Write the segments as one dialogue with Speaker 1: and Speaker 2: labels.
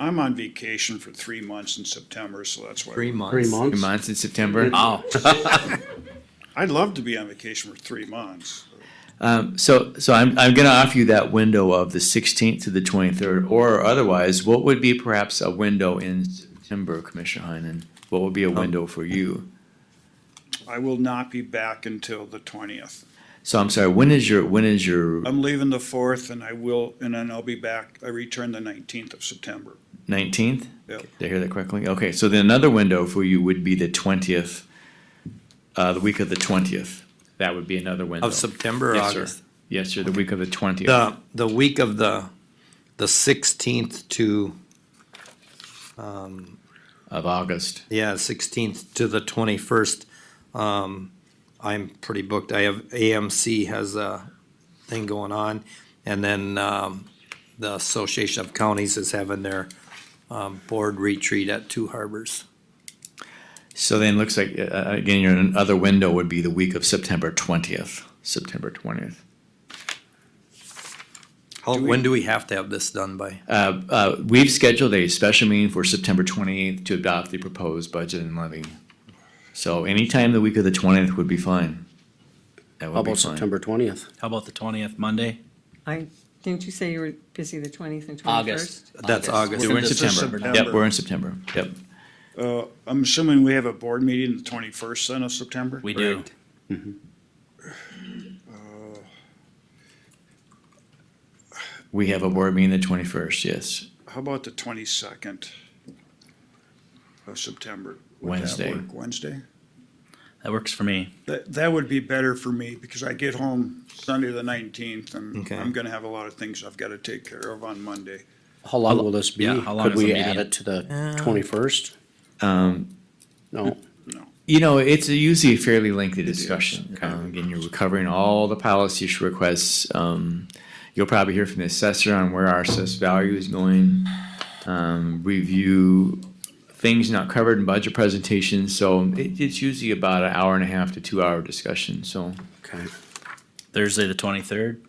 Speaker 1: I'm on vacation for three months in September, so that's why.
Speaker 2: Three months.
Speaker 3: Three months.
Speaker 2: Three months in September.
Speaker 3: Mhm.
Speaker 1: I'd love to be on vacation for three months.
Speaker 2: Um, so, so I'm, I'm going to offer you that window of the 16th to the 23rd, or otherwise, what would be perhaps a window in September, Commissioner Heinen? What would
Speaker 4: Um,
Speaker 2: be a window for you?
Speaker 1: I will not be back until the twentieth.
Speaker 2: So I'm sorry, when is your, when is your
Speaker 1: I'm leaving the fourth and I will, and then I'll be back, I return the nineteenth of September.
Speaker 2: 19th?
Speaker 1: Yep.
Speaker 2: Did I hear that correctly? Okay, so then another window for you would be the 20th, uh, the week of the 20th. That would be another window.
Speaker 4: Of September or
Speaker 2: Yes, sir.
Speaker 4: August?
Speaker 2: Yes, sir, the week of the 20th.
Speaker 4: The, the week of the, the sixteenth to,
Speaker 2: Of August.
Speaker 4: yeah, sixteenth to the twenty-first. Um, I'm pretty booked. I have AMC has a thing going on. And then, um, the Association of Counties is having their, um, board retreat at Two Harbors.
Speaker 2: So then it looks like, uh, uh, again, your other window would be the week of September 20th, September 20th.
Speaker 4: How, when do we have to have this done by?
Speaker 2: Uh, uh, We've scheduled a special meeting for September 28th to adopt the proposed budget and levy. So anytime the week of the 20th would be fine. That
Speaker 3: How
Speaker 2: would
Speaker 3: about
Speaker 2: be fine.
Speaker 3: September twentieth?
Speaker 5: How about the twentieth, Monday?
Speaker 6: I, didn't you say you were busy the twentieth and twenty-first?
Speaker 5: August.
Speaker 4: That's August.
Speaker 2: We're in
Speaker 1: This is
Speaker 2: September.
Speaker 1: September.
Speaker 2: Yep, we're in September. Yep.
Speaker 1: Uh, I'm assuming we have a board meeting the twenty-first then of September?
Speaker 5: We do.
Speaker 2: We have a board meeting the 21st, yes,
Speaker 1: How about the twenty-second of September? Would that
Speaker 2: Wednesday.
Speaker 1: work? Wednesday?
Speaker 5: That works for me.
Speaker 1: That, that would be better for me because I get home Sunday the nineteenth and
Speaker 4: Okay.
Speaker 1: I'm gonna have a lot of things I've gotta take care of on Monday.
Speaker 3: How long will this be?
Speaker 5: yeah, how long
Speaker 3: Could
Speaker 5: is the
Speaker 3: we add
Speaker 5: meeting?
Speaker 3: it to
Speaker 4: Uh,
Speaker 3: the twenty-first? Um, No,
Speaker 2: You know, it's usually a fairly lengthy discussion. Um, again, you're recovering all the policy sh- requests. Um, you'll probably hear from the assessor on where our assessed value is going. Um, review things not covered in budget presentations. So it, it's usually about an hour and a half to two hour discussion. So
Speaker 3: okay.
Speaker 5: Thursday, the twenty-third?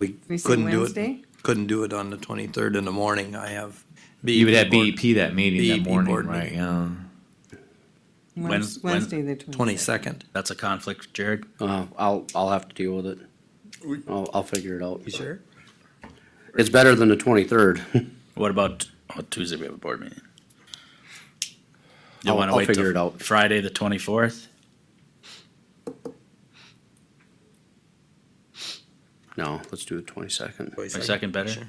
Speaker 4: We
Speaker 6: We say
Speaker 4: couldn't do
Speaker 6: Wednesday?
Speaker 4: it, couldn't do it on the twenty-third in the morning. I have. E
Speaker 2: you would have
Speaker 4: board-
Speaker 2: BEP that E meeting
Speaker 4: BEP
Speaker 2: that morning,
Speaker 4: board
Speaker 2: right?
Speaker 4: meeting.
Speaker 2: Yeah.
Speaker 5: Wednes-
Speaker 6: Wednesday, the twenty-second.
Speaker 4: Twenty-second.
Speaker 5: That's a conflict, Jared.
Speaker 3: Uh, I'll, I'll have to deal with it. I'll, I'll figure it out.
Speaker 4: You sure?
Speaker 3: It's better than the twenty-third.
Speaker 5: What about, oh, Tuesday we have a board meeting? You
Speaker 3: I'll-
Speaker 5: wanna
Speaker 3: I'll
Speaker 5: wait till
Speaker 3: figure it out.
Speaker 5: Friday, the twenty-fourth?
Speaker 3: No, let's do the twenty-second.
Speaker 5: Second better?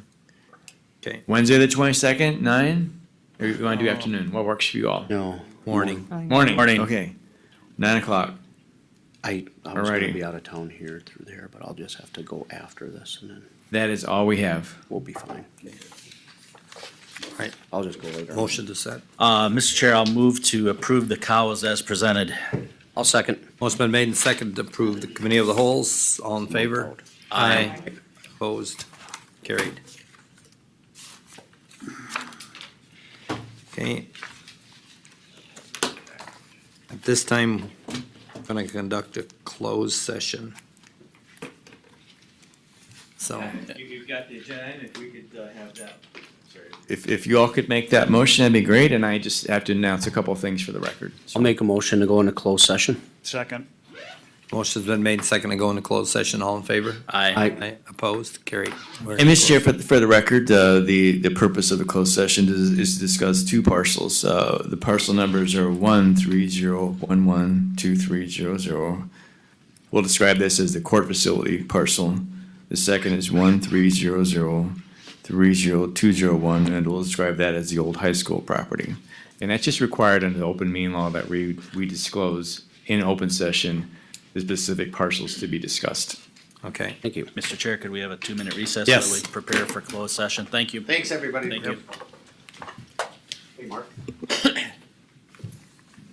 Speaker 2: Wednesday the 22nd, nine? Or you want to do afternoon? What works for you all?
Speaker 3: No,
Speaker 4: Morning.
Speaker 2: Morning.
Speaker 5: Morning.
Speaker 2: Okay. Nine o'clock.
Speaker 3: I, I was gonna
Speaker 2: Alrighty.
Speaker 3: be out of town here through there, but I'll just have to go after this and then
Speaker 2: That is all we have.
Speaker 3: we'll be fine.
Speaker 4: Right.
Speaker 3: I'll just go later.
Speaker 4: Motion to set.
Speaker 5: Uh, Mr. Chair, I'll move to approve the cows as presented.
Speaker 3: I'll second.
Speaker 4: Motion been made and seconded to approve the committee of the holes. All in favor? Aye. Opposed? Carried. Okay. At this time, I'm gonna conduct a closed session. So,
Speaker 2: You've got the agenda, if we could uh, have that. If, if you all could make that motion, that'd be great, and I just have to announce a couple of things for the record.
Speaker 3: I'll make a motion to go into closed session.
Speaker 1: Second.
Speaker 4: motion's been made and seconded to go into closed session. All in favor?
Speaker 5: Aye.
Speaker 3: I,
Speaker 4: Aye. Opposed? Carried. We're in
Speaker 2: And Mr. Chair,
Speaker 4: closed.
Speaker 2: for, the- for the record, uh, the, the purpose of the closed session is, is to discuss two parcels. Uh, the parcel numbers are one three zero one one two three zero zero. We'll describe this as the court facility parcel. The second is one three zero zero three zero two zero one, and we'll describe that as the old high school property. And that's just required under the open meeting law that we, we disclose in open session the specific parcels to be discussed.
Speaker 4: Okay.
Speaker 3: thank you.
Speaker 5: Mr. Chair, could we have a two-minute recess?
Speaker 4: Yes.
Speaker 5: while we Prepare for closed session. Thank you.
Speaker 7: Thanks, everybody.
Speaker 5: Thank you.
Speaker 7: Hey, Mark.